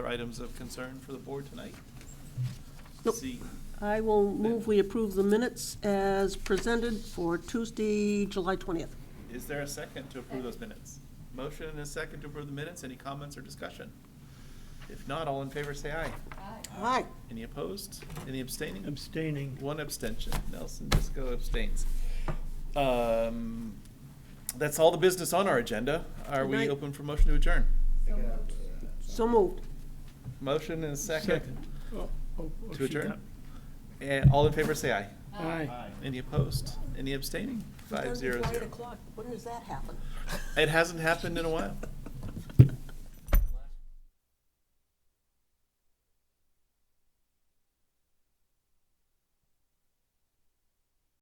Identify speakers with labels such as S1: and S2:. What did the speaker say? S1: Other items of concern for the board tonight?
S2: Nope.
S1: See,
S2: I will move we approve the minutes as presented for Tuesday, July 20th.
S1: is there a second to approve those minutes? Motion and a second to approve the minutes, any comments or discussion? If not, all in favor say aye.
S2: Aye.
S1: Any opposed? Any abstaining?
S3: Abstaining.
S1: One abstention, Nelson Disco abstains. Um, That's all the business on our agenda. Are
S2: Good
S1: we
S2: night.
S1: open for motion to adjourn?
S2: So moved.
S1: Motion and a second
S3: Oh, oh, oh,
S1: to
S3: she
S1: adjourn?
S3: got-
S1: And all in favor say aye.
S3: Aye.
S1: Any opposed? Any abstaining? Five zero
S2: Eight
S1: zero.
S2: o'clock. When does that happen?
S1: It hasn't happened in a while.